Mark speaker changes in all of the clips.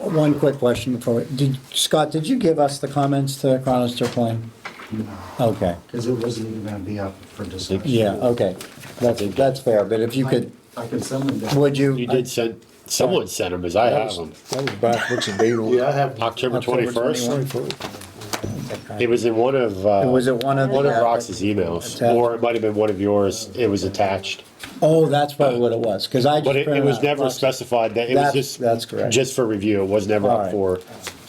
Speaker 1: One quick question before, we- did, Scott, did you give us the comments to Chronister Plain? Okay,
Speaker 2: Because it wasn't even gonna be up for discussion.
Speaker 1: yeah, okay, that's, that's fair, but if you could,
Speaker 2: I I can send them down.
Speaker 1: would you?
Speaker 3: You did send, someone sent them, as I have them.
Speaker 4: That was backwards and dated.
Speaker 3: I have. October
Speaker 1: October
Speaker 3: twenty-first.
Speaker 1: 21st?
Speaker 3: It was in one of, uh,
Speaker 1: It was at one of the-
Speaker 3: One of Rox's emails,
Speaker 1: Attached.
Speaker 3: or it might have been one of yours. It was attached.
Speaker 1: Oh, that's probably what it was, because I just.
Speaker 3: But it, it
Speaker 1: printed
Speaker 3: was
Speaker 1: out
Speaker 3: never
Speaker 1: Roxy.
Speaker 3: specified that, it
Speaker 1: That's-
Speaker 3: was just.
Speaker 1: that's correct.
Speaker 3: Just for review. It was never up
Speaker 1: All
Speaker 3: for,
Speaker 1: right.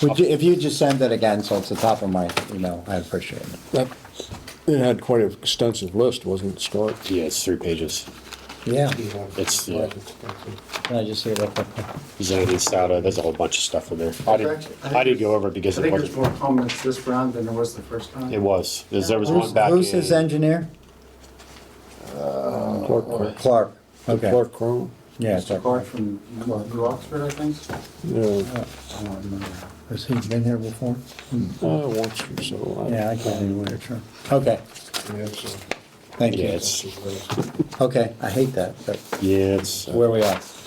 Speaker 1: Would you, if you just send it again, so it's the top of my email, I appreciate it.
Speaker 4: That- It had quite an extensive list, wasn't it, Scott?
Speaker 3: yeah, it's three pages.
Speaker 1: Yeah,
Speaker 3: It's, yeah,
Speaker 1: can I just see it real quick?
Speaker 3: Zany, Stada, there's a whole bunch of stuff in there. I didn't, I didn't go over it
Speaker 2: I
Speaker 3: because it
Speaker 2: think there's
Speaker 3: wasn't,
Speaker 2: more comments this round than there was the first time.
Speaker 3: it was, There's- there was
Speaker 1: Who's,
Speaker 3: one back
Speaker 1: who's his
Speaker 3: in.
Speaker 1: engineer?
Speaker 4: Clark, Crowe.
Speaker 1: Clark, okay,
Speaker 4: Clark Crowe.
Speaker 1: yeah,
Speaker 2: Mr.
Speaker 1: Clark.
Speaker 2: Clark from what, New Oxford, I think.
Speaker 4: Yeah,
Speaker 2: I don't remember.
Speaker 1: Has he been here before?
Speaker 4: uh, once or so. I-
Speaker 1: Yeah, I can't even wear a shirt. Okay,
Speaker 4: Yeah, so-
Speaker 1: thank
Speaker 3: Yeah,
Speaker 1: you.
Speaker 3: it's,
Speaker 1: Okay, I hate that, but
Speaker 3: yeah, it's, uh,
Speaker 1: where we are.